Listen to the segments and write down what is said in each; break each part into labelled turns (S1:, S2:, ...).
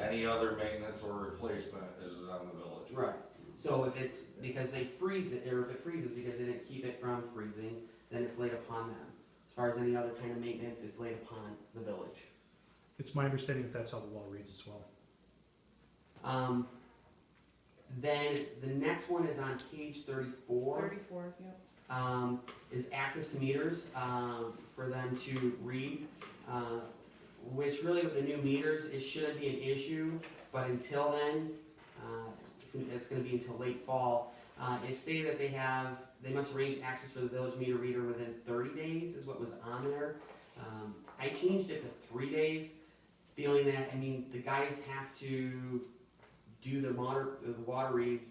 S1: any other maintenance or replacement is on the village.
S2: Right, so if it's because they freeze it, or if it freezes because they didn't keep it from freezing, then it's laid upon them. As far as any other kind of maintenance, it's laid upon the village.
S3: It's my understanding that that's how the law reads as well.
S2: Um, then the next one is on page thirty-four,
S4: Thirty-four, yep.
S2: um, is access to meters, um, for them to read. Uh, which really with the new meters, it shouldn't be an issue, but until then, uh, it's gonna be until late fall. Uh, they say that they have, they must arrange access for the village meter reader within thirty days is what was on there. Um, I changed it to three days, feeling that, I mean, the guys have to do their water, the water reads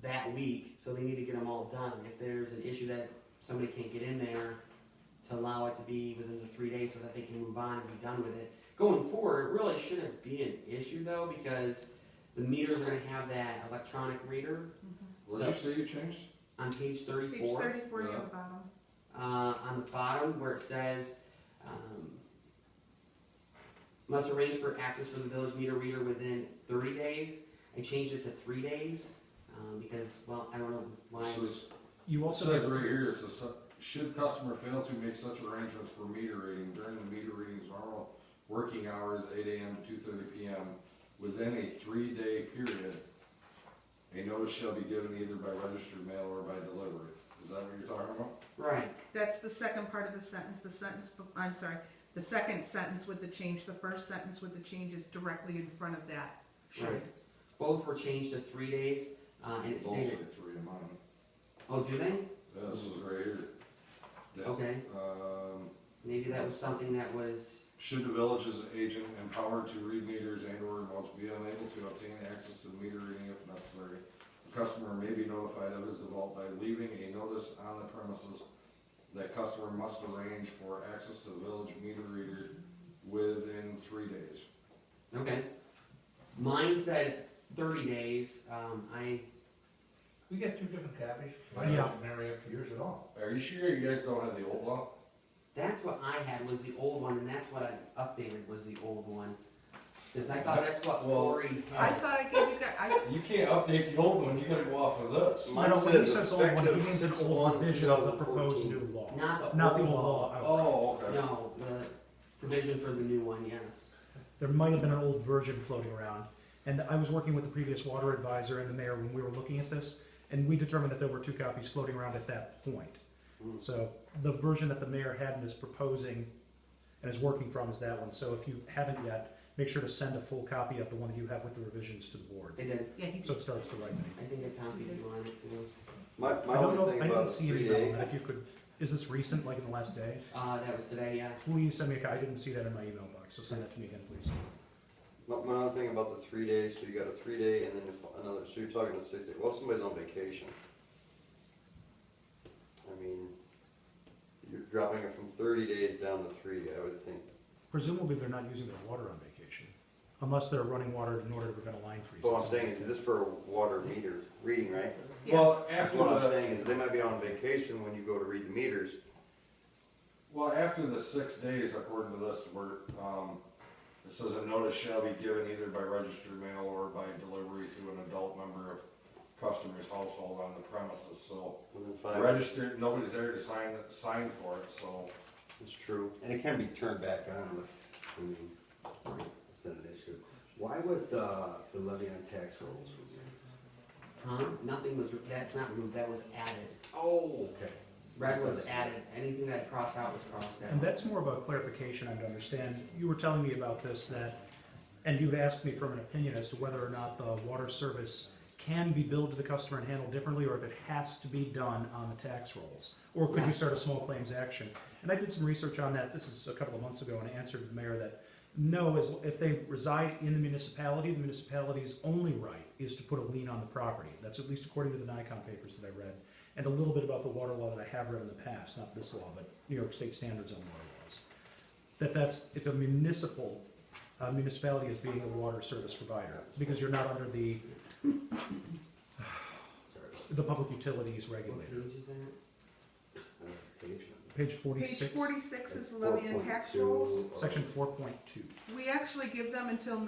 S2: that week, so they need to get them all done. If there's an issue that somebody can't get in there, to allow it to be within the three days so that they can move on and be done with it. Going forward, it really shouldn't be an issue though, because the meters are gonna have that electronic reader
S1: Where'd you say you changed?
S2: on page
S4: Page
S2: thirty-four.
S4: thirty-four
S1: Yeah.
S4: near the bottom.
S2: uh, on the bottom where it says, um, must arrange for access for the village meter reader within thirty days. I changed it to three days, um, because, well, I don't know why.
S1: So it's-
S3: You
S1: It
S3: also
S1: says
S3: have,
S1: right here, it says, should customer fail to make such arrangements for meter reading during the meter reading's normal working hours, eight AM to two thirty PM, within a three-day period, a notice shall be given either by registered mail or by delivery. Is that what you're talking about?
S2: Right,
S4: That's the second part of the sentence, the sentence, be- I'm sorry, the second sentence with the change, the first sentence with the change is directly in front of that.
S2: right. Both were changed to three days, uh, and it
S1: Both say
S2: stated,
S1: three in mine.
S2: oh, do they?
S1: Yeah, This is right here. Yeah.
S2: Okay,
S1: Um,
S2: maybe that was something that was,
S1: Should the village's agent empowered to read meters and or remotes be unable to obtain access to the meter reading if necessary? The customer may be notified of his default by leaving a notice on the premises that customer must arrange for access to the village meter reader within three days.
S2: okay. Mine said thirty days, um, I,
S5: We got two different copies.
S3: Mine Yeah. doesn't
S5: marry up to yours at all.
S1: Are you sure you guys don't have the old law?
S2: That's what I had was the old one, and that's what I updated was the old one. Because I thought that's what
S1: Well,
S2: Lori
S4: I
S2: had.
S4: thought I gave you guys, I,
S1: You can't update the old one, you gotta go off of this.
S3: no,
S6: Mine
S3: no, when he
S6: says
S3: says old one, he
S6: effective
S3: means an
S6: six
S3: old
S6: one,
S3: provision of the proposed
S6: 2014.
S3: new law,
S2: Not the
S3: not the
S2: old law.
S3: old law.
S1: Oh,
S3: outright.
S1: okay.
S2: No, the provision for the new one, yes.
S3: There might have been an old version floating around. And I was working with the previous water advisor and the mayor when we were looking at this, and we determined that there were two copies floating around at that point.
S6: Hmm.
S2: Mm.
S3: So the version that the mayor had and is proposing and is working from is that one. So if you haven't yet, make sure to send a full copy of the one that you have with the revisions to the board.
S2: I did.
S4: yeah, he
S3: So it starts the right name.
S2: I think I copied you on it too.
S6: My,
S3: I
S6: my
S3: don't
S6: only
S3: know,
S6: thing
S3: I
S6: about
S3: didn't
S6: the
S3: see
S6: three
S3: anything on
S6: day,
S3: that, if you could, is this recent, like in the last day?
S2: Uh, that was today, yeah.
S3: Please send me a copy, I didn't see that in my email box, so send that to me again, please.
S6: my, my only thing about the three days, so you got a three day and then if another, so you're talking a six day, well, if somebody's on vacation. I mean, you're dropping it from thirty days down to three, I would think,
S3: Presumably, they're not using their water on vacation, unless they're running water in order to prevent a line freeze.
S6: but what I'm saying is this for a water meter reading, right?
S1: Well, after
S6: What I'm
S1: the,
S6: saying is they might be on vacation when you go to read the meters,
S1: Well, after the six days, according to this, we're, um, it says a notice shall be given either by registered mail or by delivery to an adult member of customer's household on the premises, so.
S6: within five,
S1: Registered, nobody's there to sign, sign for it, so.
S6: it's true, and it can be turned back on if, I mean, it's not an issue.
S7: Why was uh, the levy on tax rolls removed?
S2: Huh? Nothing was, that's not removed, that was added.
S7: Oh, okay.
S2: Red was added. Anything that I crossed out was crossed
S3: And
S2: out.
S3: that's more of a clarification I would understand. You were telling me about this, that, and you had asked me for an opinion as to whether or not the water service can be billed to the customer and handled differently, or if it has to be done on the tax rolls. Or could
S2: Yeah.
S3: you start a small claims action? And I did some research on that, this is a couple of months ago, and I answered the mayor that, no, as, if they reside in the municipality, the municipality's only right is to put a lien on the property. That's at least according to the Nikon papers that I read, and a little bit about the water law that I have read in the past, not this law, but New York State standards on water laws. That that's, if a municipal, uh, municipality is being a water service provider, because you're not under the, the public utilities
S2: What
S3: regulator.
S2: page is that?
S3: Page
S4: Page
S3: forty-six,
S4: forty-six is levy and tax rolls.
S3: section four point two.
S4: We actually give them until